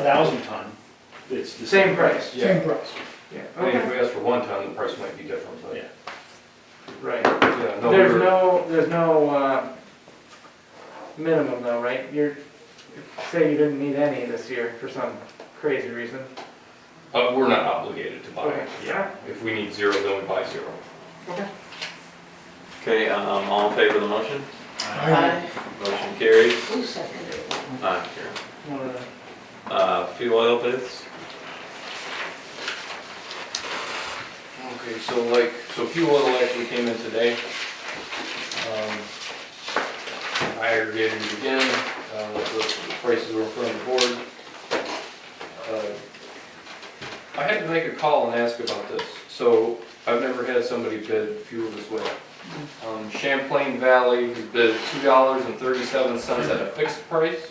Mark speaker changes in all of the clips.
Speaker 1: thousand ton, it's the
Speaker 2: Same
Speaker 1: same.
Speaker 2: price,
Speaker 3: Yeah,
Speaker 4: Same price.
Speaker 2: yeah,
Speaker 3: I mean, if
Speaker 2: okay,
Speaker 3: we asked for one ton, the price might be different, but,
Speaker 1: Yeah.
Speaker 2: right.
Speaker 3: yeah, no,
Speaker 2: There's
Speaker 3: we're,
Speaker 2: no, there's no, uh, minimum though, right? You're, say you didn't need any this year for some crazy reason.
Speaker 3: uh, we're not obligated to buy.
Speaker 2: Okay.
Speaker 3: Yeah, if we need zero, then we buy zero.
Speaker 2: Okay.
Speaker 5: Okay, um, all in favor of the motion?
Speaker 1: Uh,
Speaker 4: I
Speaker 5: Motion carries.
Speaker 6: Who seconded it?
Speaker 5: Ah, Karen.
Speaker 2: Wanna-
Speaker 5: Uh, fuel oil bids?
Speaker 3: Okay, so like, so fuel oil actually came in today. Um, I aggregated it again, uh, the the prices were from the board. Uh, I had to make a call and ask about this, so I've never had somebody bid fuel this way. Um, Champlain Valley bid two dollars and thirty-seven cents at a fixed price.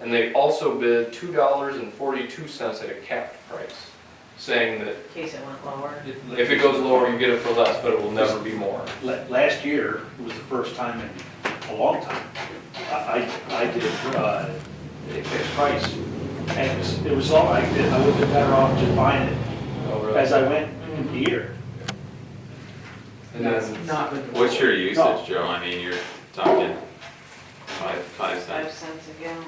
Speaker 3: And they also bid two dollars and forty-two cents at a capped price, saying that
Speaker 6: In case it went lower.
Speaker 3: if it goes lower, you get it for less, but it will never be more.
Speaker 1: La- Last year was the first time in a long time, I, I I did, uh, a fixed price. And it was, it was all I did, I would've been better off just buying it
Speaker 3: Oh,
Speaker 1: as I went here.
Speaker 3: And
Speaker 2: That's
Speaker 3: then-
Speaker 2: not been.
Speaker 5: What's your usage, Joe? I mean, you're talking five, five
Speaker 6: Five
Speaker 5: cents.
Speaker 6: cents a gallon.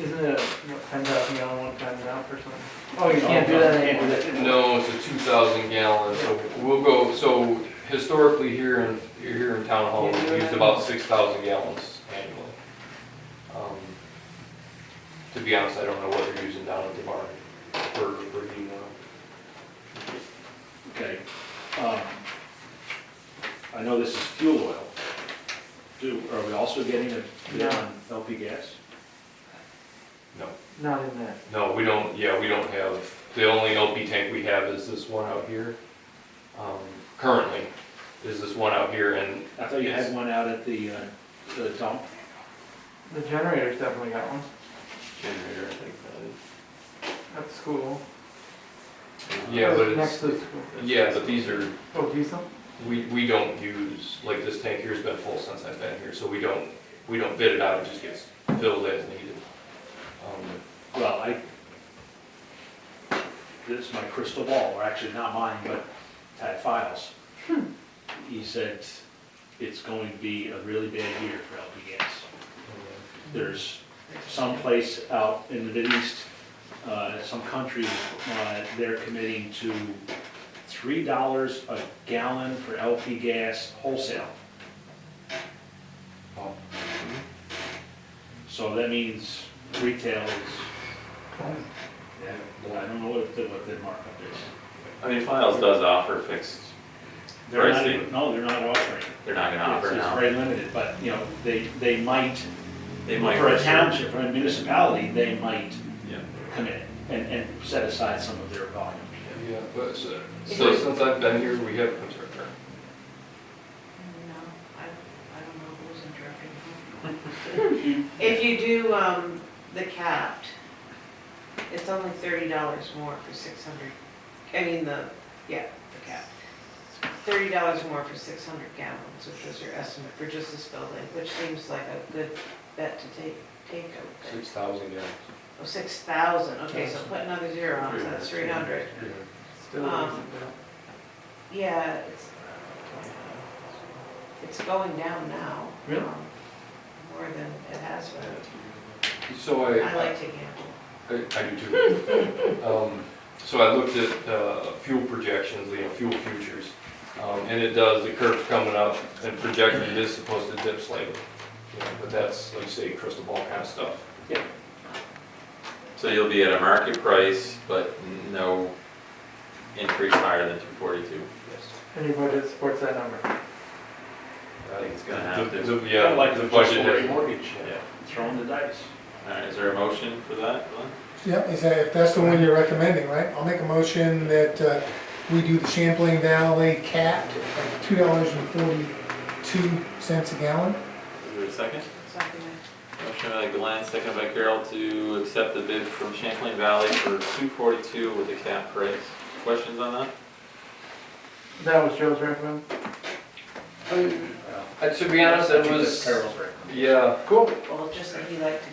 Speaker 2: Isn't it, what, ten thousand gallon, one times out or something? Oh, you can't do that
Speaker 1: Uh, Can't do
Speaker 2: anymore.
Speaker 1: that anymore.
Speaker 3: No, it's a two thousand gallon, so we'll go, so historically here in, here in town hall, we used about six thousand gallons annually. Um, To be honest, I don't know what they're using down at the barn for, for heating oil.
Speaker 1: Okay. um, I know this is fuel oil. Do, are we also getting a bid on LP gas?
Speaker 2: Not in that.
Speaker 3: No, we don't, yeah, we don't have, the only LP tank we have is this one out here. Um, Currently, is this one out here and
Speaker 1: I thought you had one out at the, uh, the dump.
Speaker 2: The generator's definitely got one.
Speaker 5: Generator, I think that
Speaker 2: At the school.
Speaker 5: is.
Speaker 3: Yeah, but it's-
Speaker 2: Next to the school.
Speaker 3: Yeah, but these are,
Speaker 2: Oh, diesel?
Speaker 3: we, we don't use, like this tank here's been full since I've been here, so we don't, we don't bid it out, it just gets filled as needed. Um,
Speaker 1: Well, I, this is my crystal ball, or actually not mine, but Tad Files. He said it's going to be a really bad year for LP gas. There's some place out in the Middle East, uh, some country, uh, they're committing to three dollars a gallon for LP gas wholesale.
Speaker 3: Oh.
Speaker 1: So that means retail is, yeah, I don't know what the, what the markup is.
Speaker 5: I mean, Files does offer fixed,
Speaker 1: They're not
Speaker 5: Pricing.
Speaker 1: even- No, they're not offering.
Speaker 5: they're not gonna
Speaker 1: It's
Speaker 5: offer
Speaker 1: it's
Speaker 5: now.
Speaker 1: very limited, but, you know, they, they might,
Speaker 5: They might.
Speaker 1: for a
Speaker 5: reserve-
Speaker 1: township, for a municipality, they might
Speaker 5: Yeah.
Speaker 1: commit and, and set aside some of their volume.
Speaker 3: Yeah, but, so, so since I've been here, we have, I'm sorry, Karen.
Speaker 6: No, I, I don't know who's interrupting. who. If you do, um, the capped, it's only thirty dollars more for six hundred, I mean, the, yeah, the cap. Thirty dollars more for six hundred gallons, which was your estimate for just this building, which seems like a good bet to take, take out there.
Speaker 3: six thousand gallons.
Speaker 6: Oh, six thousand, okay, so put another zero on, it, so that's three hundred.
Speaker 2: Still
Speaker 6: Um,
Speaker 2: isn't that.
Speaker 6: Yeah, it's, it's going down now.
Speaker 2: Really?
Speaker 6: um, More than it has been.
Speaker 3: So I.
Speaker 6: I like to gamble.
Speaker 3: I I do too. Um, So I looked at uh, fuel projections, you know, fuel futures, um, and it does, the curve's coming up and projected it is supposed to dip slightly. You know, But that's, like you say, crystal ball kind of stuff.
Speaker 5: So you'll be at a market price, but no increase higher than two forty-two.
Speaker 2: Anybody that supports that number?
Speaker 5: I think it's gonna have
Speaker 3: The-
Speaker 5: to.
Speaker 3: the- Yeah,
Speaker 1: Kinda like
Speaker 3: the
Speaker 1: the
Speaker 3: budget.
Speaker 1: Just for a
Speaker 3: has-
Speaker 1: mortgage,
Speaker 5: Yeah.
Speaker 1: throwing the dice.
Speaker 5: All right, is there a motion for that, Glenn?
Speaker 4: Yeah, is that, if that's the one you're recommending, right? I'll make a motion that uh, we do the Champlain Valley capped at two dollars and forty-two cents a gallon.
Speaker 5: Is there a second?
Speaker 6: Something
Speaker 5: Motion by Glenn, second by Carol to accept the bid from Champlain Valley for two forty-two with a cap price. Questions on that?
Speaker 2: That was Joe's recommend?
Speaker 3: Uh, To be honest, it
Speaker 1: That's
Speaker 3: was,
Speaker 1: Carol's recommendation.
Speaker 3: yeah,
Speaker 2: Cool.
Speaker 6: like- Well, just that he liked to